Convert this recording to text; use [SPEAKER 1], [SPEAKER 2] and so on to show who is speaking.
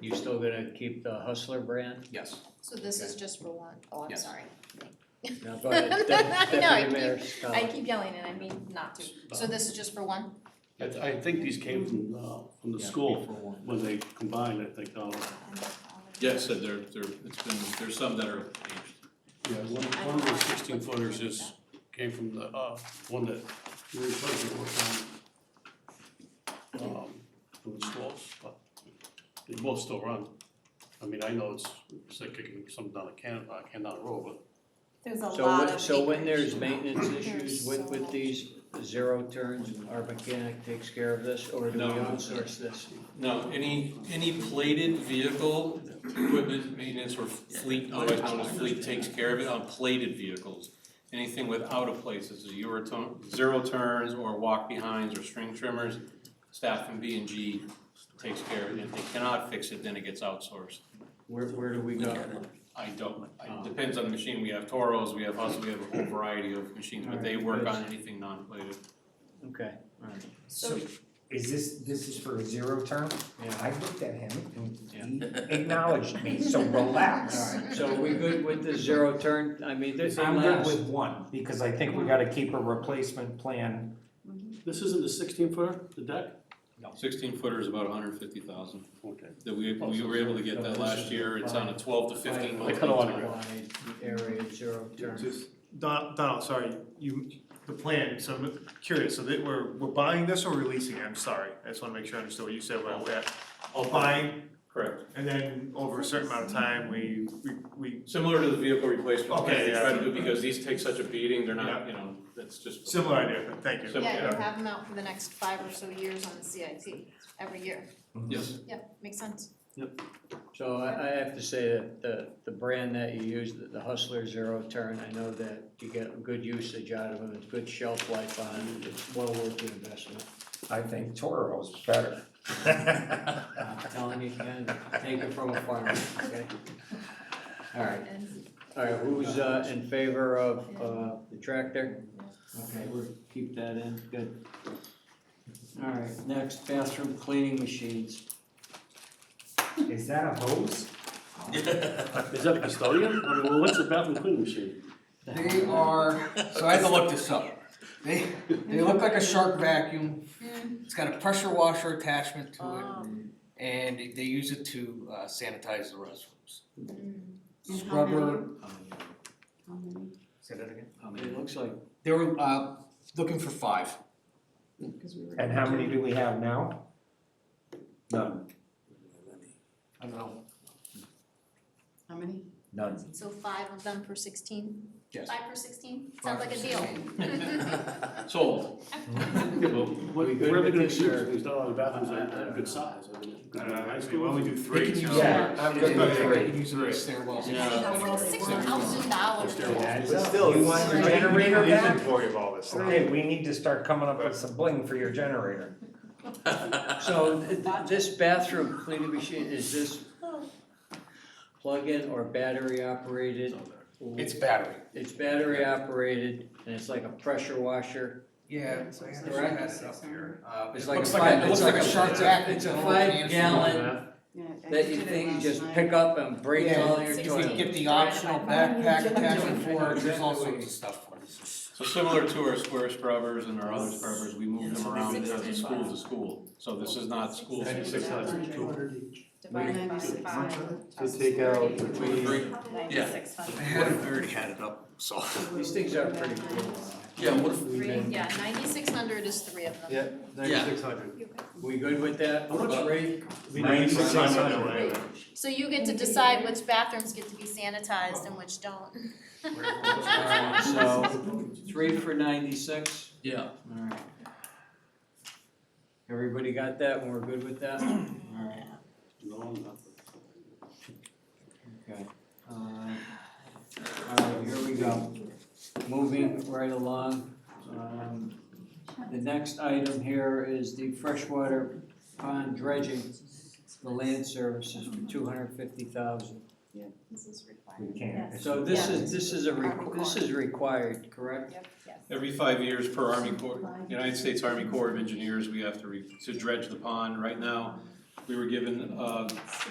[SPEAKER 1] You still gonna keep the Hustler brand?
[SPEAKER 2] Yes,
[SPEAKER 3] So this is just for one. Oh, I'm
[SPEAKER 2] Yes.
[SPEAKER 3] sorry.
[SPEAKER 1] Now go ahead, Dep-
[SPEAKER 3] No, I
[SPEAKER 1] Deputy Mayor Scott.
[SPEAKER 3] I keep yelling and I mean not to. So this is just for one?
[SPEAKER 4] I, th- I think these came from, uh, from the
[SPEAKER 1] Yeah,
[SPEAKER 4] school
[SPEAKER 1] for one.
[SPEAKER 4] when they combined, I think, all,
[SPEAKER 5] Yes, there, there, it's been, there's some that are aged.
[SPEAKER 4] yeah, one, one of the sixteen footers is, came from the, uh, one that we were supposed to work on. Um, from the schools, but they both still run. I mean, I know it's, it's like kicking something down a can, uh, can down a road, but
[SPEAKER 3] There's a
[SPEAKER 1] So when, so when there's maintenance issues with, with these zero turns, our mechanic takes care of this, or do we
[SPEAKER 5] No.
[SPEAKER 1] outsource this?
[SPEAKER 5] No, any, any plated vehicle, equipment maintenance or fleet, otherwise known as fleet takes care of it on plated vehicles. Anything without a place, this is your turn, zero turns or walk behinds or string trimmers, staff from B and G takes care of it. If they cannot fix it, then it gets outsourced.
[SPEAKER 1] Where, where do we go?
[SPEAKER 5] I don't, it depends on the machine, we have Toros, we have Husky, we have a whole variety of machines, but they work on anything non-plated.
[SPEAKER 1] Okay, alright,
[SPEAKER 3] So
[SPEAKER 6] Is this, this is for a zero term?
[SPEAKER 1] yeah,
[SPEAKER 6] I looked at him and he acknowledged me, so relax.
[SPEAKER 1] alright, so we good with the zero turn, I mean, this,
[SPEAKER 6] I'm good with one, because I think we gotta keep a replacement plan.
[SPEAKER 4] this isn't the sixteen footer, the deck?
[SPEAKER 5] Sixteen footer is about hundred fifty thousand,
[SPEAKER 4] Okay.
[SPEAKER 5] that we, we were able to get that last year, it's on a twelve to fifteen month.
[SPEAKER 4] I kinda wanna
[SPEAKER 5] lead time.
[SPEAKER 1] wide area zero turn.
[SPEAKER 7] Just, Don, Donald, sorry, you, the plan, so I'm curious, so that we're, we're buying this or releasing it, I'm sorry, I just wanna make sure I understood what you said, about that. All buying,
[SPEAKER 5] Correct,
[SPEAKER 7] and then over a certain amount of time, we, we, we,
[SPEAKER 5] similar to the vehicle replacement plan,
[SPEAKER 7] Okay,
[SPEAKER 5] we
[SPEAKER 7] yeah.
[SPEAKER 5] try to do, because these take such a beating, they're not, you know, that's just.
[SPEAKER 7] similar idea, but thank you.
[SPEAKER 5] So,
[SPEAKER 3] yeah, you
[SPEAKER 5] yeah.
[SPEAKER 3] have them out for the next five or so years on the CIT every year.
[SPEAKER 5] Yes,
[SPEAKER 3] Yeah, makes sense.
[SPEAKER 1] So I, I have to say that the, the brand that you use, the- the Hustler Zero Turn, I know that you get good usage out of them, it's good shelf life on it, it's well worth the investment.
[SPEAKER 6] I think Toro's better.
[SPEAKER 1] I'm telling you, Ken, take it from a farmer, okay? All right,
[SPEAKER 3] And
[SPEAKER 1] all right, who's, uh, in favor of, uh, the tractor? Okay, we'll keep that in, good. All right, next, bathroom cleaning machines.
[SPEAKER 6] Is that a hose?
[SPEAKER 4] Is that custodian? I mean, what's the bathroom cleaning machine?
[SPEAKER 8] They are, so I had to look this up. They, they look like a shark vacuum. It's got a pressure washer attachment to it,
[SPEAKER 3] Oh.
[SPEAKER 8] and they use it to uh, sanitize the restrooms.
[SPEAKER 3] Mm.
[SPEAKER 8] Scrubber, say that again?
[SPEAKER 1] It looks like
[SPEAKER 8] They were, uh, looking for five.
[SPEAKER 6] And how many do we have now? None.
[SPEAKER 8] I don't know,
[SPEAKER 9] How many?
[SPEAKER 6] None.
[SPEAKER 3] so five of them for sixteen?
[SPEAKER 8] yes.
[SPEAKER 3] Five for sixteen?
[SPEAKER 8] five
[SPEAKER 3] Sounds like
[SPEAKER 8] or
[SPEAKER 3] a deal.
[SPEAKER 8] 16.
[SPEAKER 5] sold.
[SPEAKER 4] What,
[SPEAKER 1] We good
[SPEAKER 4] where are they
[SPEAKER 1] with
[SPEAKER 4] gonna
[SPEAKER 1] this,
[SPEAKER 4] use
[SPEAKER 1] or-
[SPEAKER 4] it? There's not a lot of bathrooms
[SPEAKER 1] I- I
[SPEAKER 4] that are
[SPEAKER 1] don't know.
[SPEAKER 4] good size, Uh, I mean.
[SPEAKER 7] I don't know,
[SPEAKER 4] high
[SPEAKER 7] actually,
[SPEAKER 4] school.
[SPEAKER 7] why don't we do three,
[SPEAKER 8] They can
[SPEAKER 7] so-
[SPEAKER 8] use
[SPEAKER 6] Yeah, I'm good with
[SPEAKER 8] They
[SPEAKER 6] three.
[SPEAKER 8] can use it in the stairwells.
[SPEAKER 5] Yeah.
[SPEAKER 3] That's like six thousand dollars.
[SPEAKER 6] But still, you want your generator
[SPEAKER 7] The
[SPEAKER 6] back?
[SPEAKER 7] inventory of all this.
[SPEAKER 6] Okay, we need to start coming up with some bling for your generator.
[SPEAKER 1] So th- th- this bathroom cleaning machine, is this plug-in or battery operated?
[SPEAKER 8] It's battery.
[SPEAKER 1] It's battery operated and it's like a pressure washer.
[SPEAKER 8] Yeah.
[SPEAKER 9] So
[SPEAKER 8] I
[SPEAKER 9] it's
[SPEAKER 8] actually
[SPEAKER 1] correct?
[SPEAKER 8] had it up here. Uh,
[SPEAKER 1] It's
[SPEAKER 8] it
[SPEAKER 1] like
[SPEAKER 8] looks
[SPEAKER 1] a
[SPEAKER 8] like,
[SPEAKER 1] five-
[SPEAKER 8] a- it looks
[SPEAKER 1] it's
[SPEAKER 8] like a
[SPEAKER 1] like a-
[SPEAKER 8] shark vacuum.
[SPEAKER 1] It's a
[SPEAKER 8] with
[SPEAKER 1] five
[SPEAKER 8] can full of
[SPEAKER 1] gallon-
[SPEAKER 9] Yeah,
[SPEAKER 1] That
[SPEAKER 9] I just
[SPEAKER 1] you
[SPEAKER 9] did it
[SPEAKER 1] think you
[SPEAKER 9] last
[SPEAKER 1] just
[SPEAKER 9] night.
[SPEAKER 1] pick up and break
[SPEAKER 8] Yeah,
[SPEAKER 1] all your
[SPEAKER 3] it's-
[SPEAKER 8] You can
[SPEAKER 1] toilet.
[SPEAKER 8] get the optional backpack attachment for it, there's all sorts of stuff for it.
[SPEAKER 5] So similar to our square scrubbers and our other scrubbers, we move them around as a school to school, so this is not school.
[SPEAKER 4] Ninety-six thousand two hundred each.
[SPEAKER 9] Divided by five.
[SPEAKER 7] To take out between-
[SPEAKER 9] Ninety-six hundred.
[SPEAKER 8] already had it up, so.
[SPEAKER 1] These things are pretty cool.
[SPEAKER 8] Yeah, what if?
[SPEAKER 3] Three, yeah, ninety-six hundred is three of them.
[SPEAKER 7] Yeah, ninety-six hundred.
[SPEAKER 1] We good with that?
[SPEAKER 4] How much-
[SPEAKER 1] About rate?
[SPEAKER 7] Ninety-six hundred.
[SPEAKER 3] So you get to decide which bathrooms get to be sanitized and which don't.
[SPEAKER 1] Alright, so three for ninety-six?
[SPEAKER 5] Yeah.
[SPEAKER 1] Alright. Everybody got that and we're good with that? Alright,
[SPEAKER 4] No, not.
[SPEAKER 1] okay. Uh, Alright, here we go. Moving right along. Um, The next item here is the freshwater pond dredging, the land services for two hundred fifty thousand.
[SPEAKER 9] This is required.
[SPEAKER 6] We can't.
[SPEAKER 1] So this is, this is a, requ- this is required, correct?
[SPEAKER 9] Yep, yes.
[SPEAKER 5] Every five years per Army Corps, United States Army Corps of Engineers, we have to re, to dredge the pond. Right now, we were given, uh,